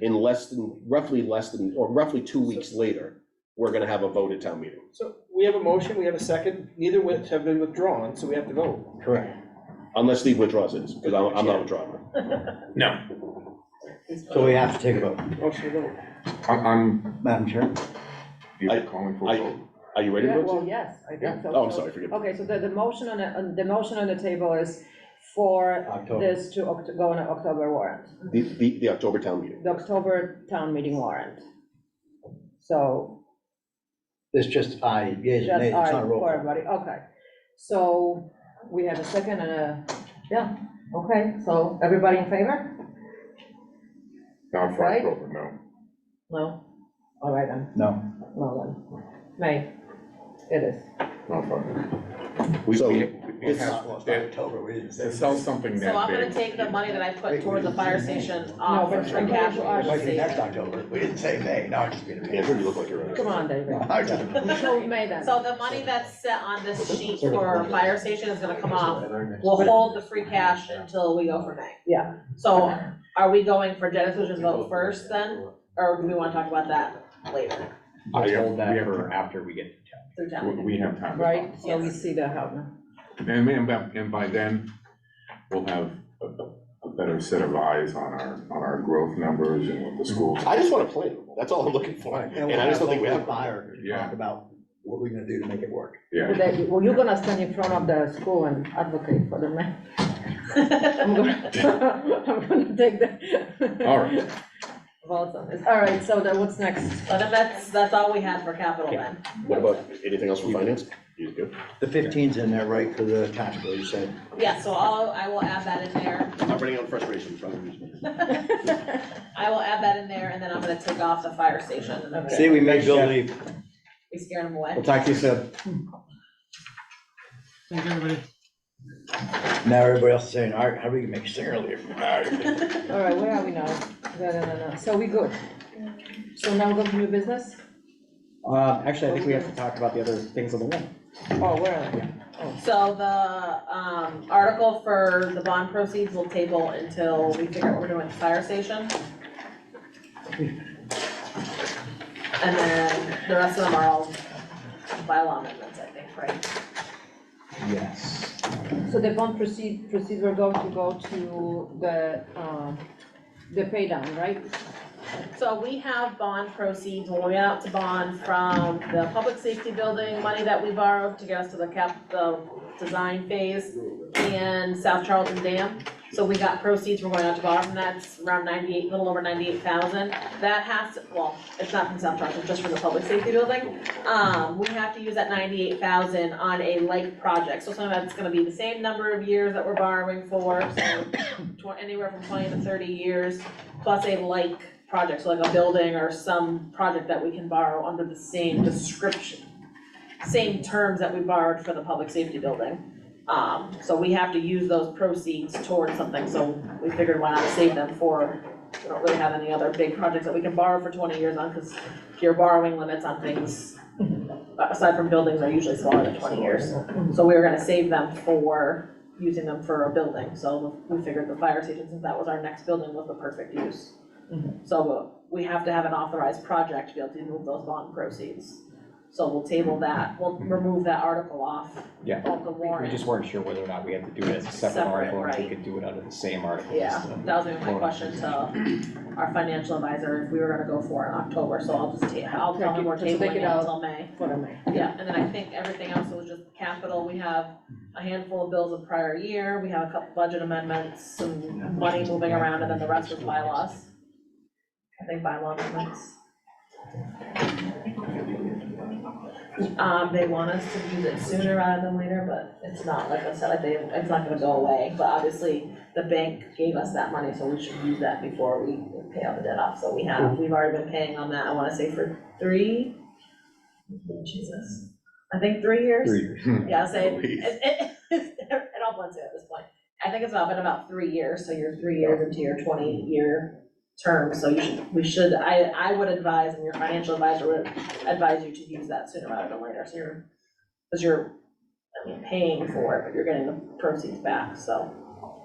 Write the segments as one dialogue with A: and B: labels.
A: in less than, roughly less than, or roughly two weeks later, we're gonna have a vote at town meeting.
B: So we have a motion, we have a second, neither which have been withdrawn, so we have to vote.
A: Correct. Unless Lee withdraws it, because I'm, I'm not withdrawing.
C: No.
D: So we have to take a vote.
B: Motion to vote.
C: I'm, I'm,
D: Madam Chair,
A: I-
C: you're calling for
A: I-
C: a vote.
A: Are you ready to
E: Yeah,
A: vote?
E: Well, yes, I
C: Yeah.
E: think so.
A: Oh, I'm
E: So-
A: sorry, forgive me.
E: Okay, so the, the motion on, the- on- the motion on the table is for
D: October.
E: this to oct- go on an October warrant,
A: The, the, the October town meeting.
E: the October town meeting warrant. So
D: It's just aye, yes,
E: that's
D: nay, it's
E: all
D: not a
E: right
D: roll.
E: for
D: call.
E: everybody, okay. So we have a second and a, yeah, okay, so everybody in favor?
C: Not for
E: Right?
C: October, no.
E: No? All right then,
D: No,
E: no then. May, it is.
C: Not for.
A: So,
C: We- we
A: it's-
C: have-
D: Well, it's not
C: To
D: October, we didn't say.
C: to sell something that
F: So I'm gonna
C: big,
F: take the money that I put
D: Wait,
F: towards the
D: wait,
F: fire
D: wait.
F: station
E: No,
F: off
E: but
F: of
E: I'm
F: free
E: glad
F: cash.
E: you
D: It might be
E: Obviously.
D: next October, we didn't say May, no, I'm just kidding.
A: Andrew, you look like you're.
E: Come on, David.
D: I just-
E: So May then.
F: So the money that's set on this sheet for fire station is gonna come off. We'll
D: But-
F: hold the free cash until we go for May.
E: Yeah.
F: So are we going for Jenna Solutions vote first then, or do we wanna talk about that later
C: I
D: Let's
C: have-
D: hold that
C: we have
D: for
C: to-
D: after we get.
F: through
C: we-
F: town?
C: We have time. to
E: Right, so we
F: Yes.
E: see that happening.
C: talk. And, and by- and by then, we'll have a, a- a better set of eyes on our, on our growth numbers and what the schools.
A: I just want a plan. That's all I'm looking for. And I just don't think we have. one.
D: Fire, to
C: Yeah.
D: talk about what we're gonna do to make it work.
C: Yeah,
E: That you- Well, you're gonna stand in front of the school and advocate for the man. I'm gonna I'm gonna take the.
C: all right.
E: Votes on this. All right, so then what's next?
F: But then that's, that's all we had for capital then.
A: What about, anything else from finance? You good?
D: The 15's in there, right, for the tax bill, you said?
F: Yeah, so I'll, I will add that in there.
A: I'm running out of frustration, probably.
F: I will add that in there and then I'm gonna take off the fire station. and I'm gonna-
D: See, we made Bill leave.
F: We scared them away.
D: We'll talk to you soon. Thank everybody. Now everybody else is saying, all right, how do we make Singer leave?
E: All right, where are we now? No, no, no, no. So we good. So now go to new business?
G: Um, actually, I think we have to talk about the other things on the wall.
E: Oh, where are we?
F: So the, um, article for the bond proceeds will table until we figure out what we're doing with the fire station. And then the rest of them are all bylaw amendments, I think, right?
G: Yes.
E: So the bond proceed, proceeds were going to go to the, um, the pay down, right?
F: So we have bond proceeds, when we went out to bond from the public safety building, money that we borrowed to get us to the cap, the design phase and South Charlton Dam. So we got proceeds, we're going out to bond, and that's around ninety-eight, a little over ninety-eight thousand. That has, to well, it's not from South Charlton, just from the public safety building. Um, we have to use that ninety-eight thousand on a like project, so some of that's gonna be the same number of years that we're borrowing for, so tw- anywhere from twenty to thirty years, plus a like project, so like a building or some project that we can borrow under the same description, same terms that we borrowed for the public safety building. Um, so we have to use those proceeds towards something, so we figured why not save them for, we don't really have any other big projects that we can borrow for twenty years on, cause your borrowing limits on things, aside from buildings, are usually smaller than twenty years. So we were gonna save them for, using them for a building, so we figured the fire station, since that was our next building, was the perfect use. So we have to have an authorized project to be able to move those bond proceeds. So we'll table that, we'll remove that article off
G: Yeah.
F: of the
G: We
F: warrant.
G: just weren't sure whether or not we had to do it as a separate
F: Separate,
G: article, or if we
F: right.
G: could do it under the same article.
F: Yeah,
G: instead.
F: that was gonna be my question to our financial advisor, if we were gonna go for it in October, so I'll just ta, I'll tell him we're
E: Take it- just take
F: tabling
E: it
F: it
E: out.
F: until May.
E: What am I?
F: Yeah, and then I think everything else was just capital, we have a handful of bills of prior year, we have a couple budget amendments, some money moving around, and then the rest was bylaws. I think bylaw amendments. Um, they want us to use it sooner rather than later, but it's not, like I said, like they, it's not gonna go away, but obviously, the bank gave us that money, so we should use that before we pay all the debt off, so we have, we've already been paying on that, I wanna say for three. Jesus, I think three years.
G: Three years.
F: Yeah, so it,
C: Please.
F: it, it it all blends in at this point. I think it's about, been about three years, so you're three years into your twenty-year term, so you should, we should, I, I would advise, and your financial advisor would advise you to use that sooner rather than later, so you're, because you're, I mean, paying for it, but you're getting the proceeds back, so.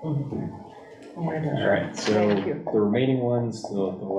G: All right, so
E: Thank you.
G: the remaining ones, the, the